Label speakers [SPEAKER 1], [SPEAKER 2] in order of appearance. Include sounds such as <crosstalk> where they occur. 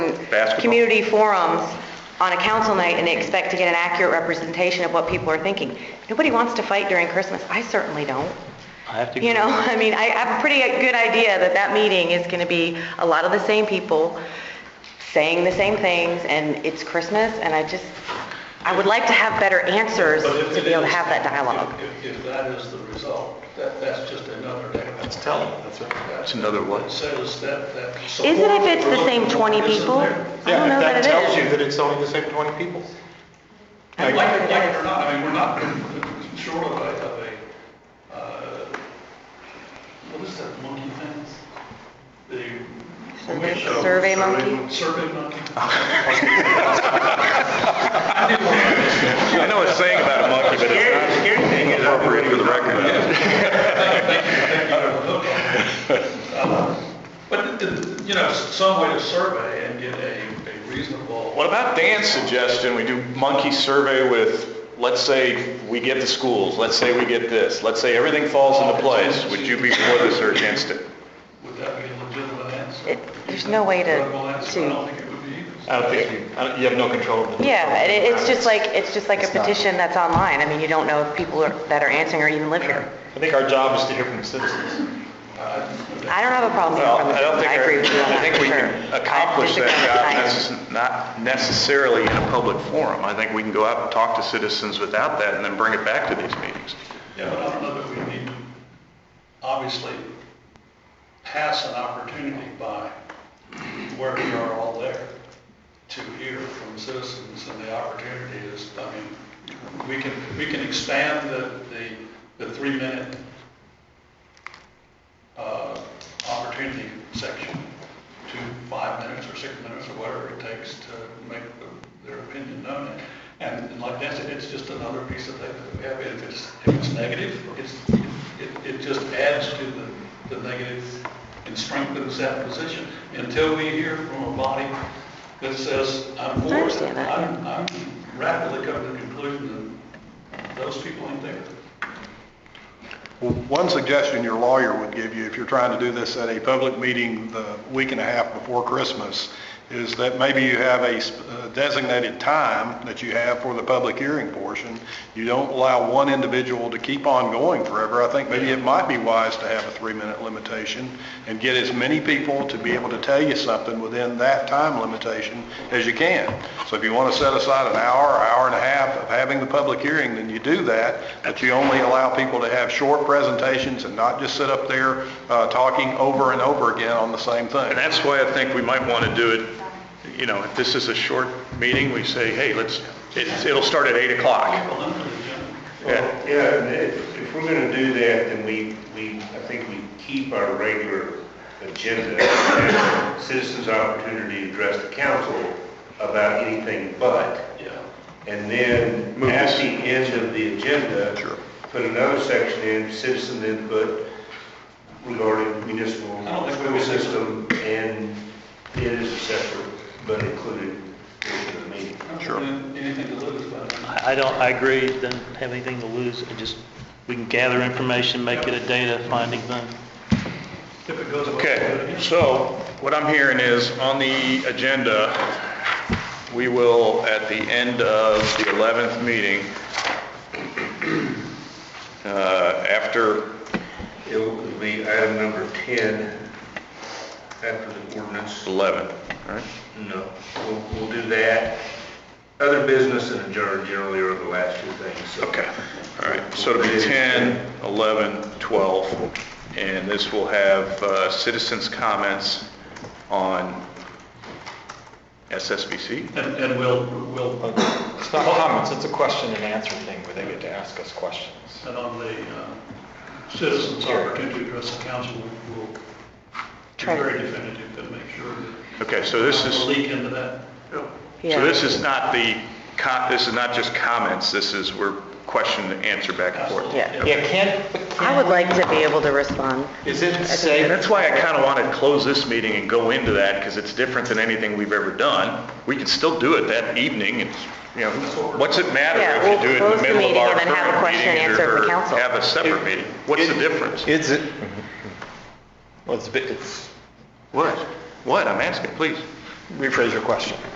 [SPEAKER 1] basketball.
[SPEAKER 2] community forums on a council night and expect to get an accurate representation of what people are thinking. Nobody wants to fight during Christmas. I certainly don't.
[SPEAKER 3] I have to.
[SPEAKER 2] You know, <laughs> I mean, I have a pretty good idea that that meeting is going to be a lot of the same people saying the same things, and it's Christmas, and I just, I would like to have better answers
[SPEAKER 4] But if
[SPEAKER 2] to
[SPEAKER 4] it
[SPEAKER 2] be able to
[SPEAKER 4] is-
[SPEAKER 2] have that dialogue.
[SPEAKER 4] If, if that is the result, that, that's just another.
[SPEAKER 1] That's telling, that's right. It's another
[SPEAKER 4] That
[SPEAKER 1] what?
[SPEAKER 4] says that, that.
[SPEAKER 2] Isn't if it's the same 20
[SPEAKER 4] Isn't
[SPEAKER 2] people?
[SPEAKER 4] there?
[SPEAKER 2] I don't know that it
[SPEAKER 3] Yeah, if that tells
[SPEAKER 2] is.
[SPEAKER 3] you that it's only the same 20 people.
[SPEAKER 4] Like, like it or not, I mean, we're not <laughs> short of a, of a, uh, what is that monkey thing? The.
[SPEAKER 2] Survey- survey monkey?
[SPEAKER 4] Survey monkey.
[SPEAKER 1] I know it's saying about a monkey, but it's not appropriate for the record.
[SPEAKER 4] Uh, But, the- the- you know, s- some way to survey and get a, a reasonable.
[SPEAKER 5] What about Dan's suggestion, we do monkey survey with, let's say we get the schools, let's say we get this, let's say everything falls into place, would you be for this or against it?
[SPEAKER 4] Would that be a legitimate answer?
[SPEAKER 2] It- there's no way to-
[SPEAKER 4] Legitimate answer, I don't think it would be either.
[SPEAKER 3] I don't think you, I don't- you have no control over the.
[SPEAKER 2] Yeah, and it- it's just like, it's just like a
[SPEAKER 3] It's not.
[SPEAKER 2] petition that's online. I mean, you don't know if people are- that are answering or even live here.
[SPEAKER 3] I think our job is to hear from the citizens.
[SPEAKER 4] Uh,
[SPEAKER 2] I don't have a problem
[SPEAKER 1] Well,
[SPEAKER 2] hearing from the
[SPEAKER 1] I don't
[SPEAKER 2] citizens.
[SPEAKER 1] think,
[SPEAKER 2] I agree with you on
[SPEAKER 1] I
[SPEAKER 2] that,
[SPEAKER 1] think
[SPEAKER 2] for
[SPEAKER 1] we
[SPEAKER 2] sure.
[SPEAKER 1] can accomplish
[SPEAKER 2] I
[SPEAKER 1] that
[SPEAKER 2] disagree
[SPEAKER 1] job,
[SPEAKER 2] with you.
[SPEAKER 1] necess- not necessarily in a public forum. I think we can go out and talk to citizens without that and then bring it back to these meetings.
[SPEAKER 4] Yeah, but I don't know that we need, to obviously, pass an opportunity by where we are all there to hear from citizens, and the opportunity is, I mean, we can, we can expand the, the, the three-minute, uh, opportunity section to five minutes or six minutes or whatever it takes to make the- their opinion known. And and like Dan said, it's just another piece of paper that we have. If it's, if it's negative, it's, it, it just adds to the, the negative and strengthens that position until we hear from a body that says, I'm for it.
[SPEAKER 2] I understand that, yeah.
[SPEAKER 4] I'm- I'm rapidly coming to the conclusion that those people ain't there.
[SPEAKER 6] Well, One suggestion your lawyer would give you, if you're trying to do this at a public meeting the week and a half before Christmas, is that maybe you have a sp- uh, designated time that you have for the public hearing portion. You don't allow one individual to keep on going forever. I think maybe it might be wise to have a three-minute limitation and get as many people to be able to tell you something within that time limitation as you can. So if you want to set aside an hour, hour and a half of having the public hearing, then you do that, but you only allow people to have short presentations and not just sit up there uh, talking over and over again on the same thing.
[SPEAKER 1] And that's why I think we might want to do it, you know, if this is a short meeting, we say, hey, let's, it's- it'll start at 8 o'clock.
[SPEAKER 4] Well, under the general-
[SPEAKER 1] Yeah.
[SPEAKER 7] Yeah, and if, if we're gonna do that, then we, we, I think we keep our regular agenda and citizens' opportunity to address the council about anything but.
[SPEAKER 4] Yeah.
[SPEAKER 7] And then
[SPEAKER 1] Move
[SPEAKER 7] at
[SPEAKER 1] this.
[SPEAKER 7] the end of the agenda.
[SPEAKER 1] Sure.
[SPEAKER 7] Put another section in, citizen input regarding municipal
[SPEAKER 4] I don't think we
[SPEAKER 7] school
[SPEAKER 4] will.
[SPEAKER 7] system, and it is a separate but included portion of the meeting.
[SPEAKER 1] Sure.
[SPEAKER 4] Anything to lose by that?
[SPEAKER 3] I don't, I agree, don't have anything to lose, just, we can gather information, make it a data finding thing.
[SPEAKER 4] If it goes. well, good
[SPEAKER 1] Okay,
[SPEAKER 4] again.
[SPEAKER 1] so what I'm hearing is on the agenda, we will, at the end of the 11th meeting, uh, after,
[SPEAKER 7] It will be item number 10 after the ordinance.
[SPEAKER 1] 11, all right?
[SPEAKER 7] No, we'll, we'll do that. Other business and adjourn generally are the last two things, so.
[SPEAKER 1] Okay, all right, so it'll be 10, 11, 12, and this will have uh, citizens' comments on SSBC?
[SPEAKER 4] And, and we'll, we'll,
[SPEAKER 3] It's not comments, it's a question and answer thing where they get to ask us questions.
[SPEAKER 4] and on the uh, citizens' opportunity to address the council, we'll be
[SPEAKER 2] Try to-
[SPEAKER 4] very definitive and make sure that.
[SPEAKER 1] Okay, so this is...
[SPEAKER 4] We'll Leak into that.
[SPEAKER 2] Yeah.
[SPEAKER 1] So this is not the, co- this is not just comments, this is, we're question and answer back and forth.
[SPEAKER 2] Yeah.
[SPEAKER 3] Yeah, can't, but
[SPEAKER 2] I would like to be able to respond.
[SPEAKER 3] is it
[SPEAKER 1] And
[SPEAKER 3] safe,
[SPEAKER 1] that's why I kind of want to close this meeting and go into that, because it's different than anything we've ever done. We can still do it that evening, it's, you know, what's it matter
[SPEAKER 2] Yeah,
[SPEAKER 1] if you
[SPEAKER 2] we'll
[SPEAKER 1] do it in
[SPEAKER 2] close
[SPEAKER 1] the
[SPEAKER 2] the
[SPEAKER 1] middle of
[SPEAKER 2] meeting
[SPEAKER 1] our
[SPEAKER 2] and then have a
[SPEAKER 1] current
[SPEAKER 2] question and
[SPEAKER 1] meeting
[SPEAKER 2] answer
[SPEAKER 1] or
[SPEAKER 2] from council.
[SPEAKER 1] have a separate meeting? What's the difference?
[SPEAKER 3] is it, well, it's, a bit- it's,
[SPEAKER 1] What? What? I'm asking, please.
[SPEAKER 3] rephrase your question.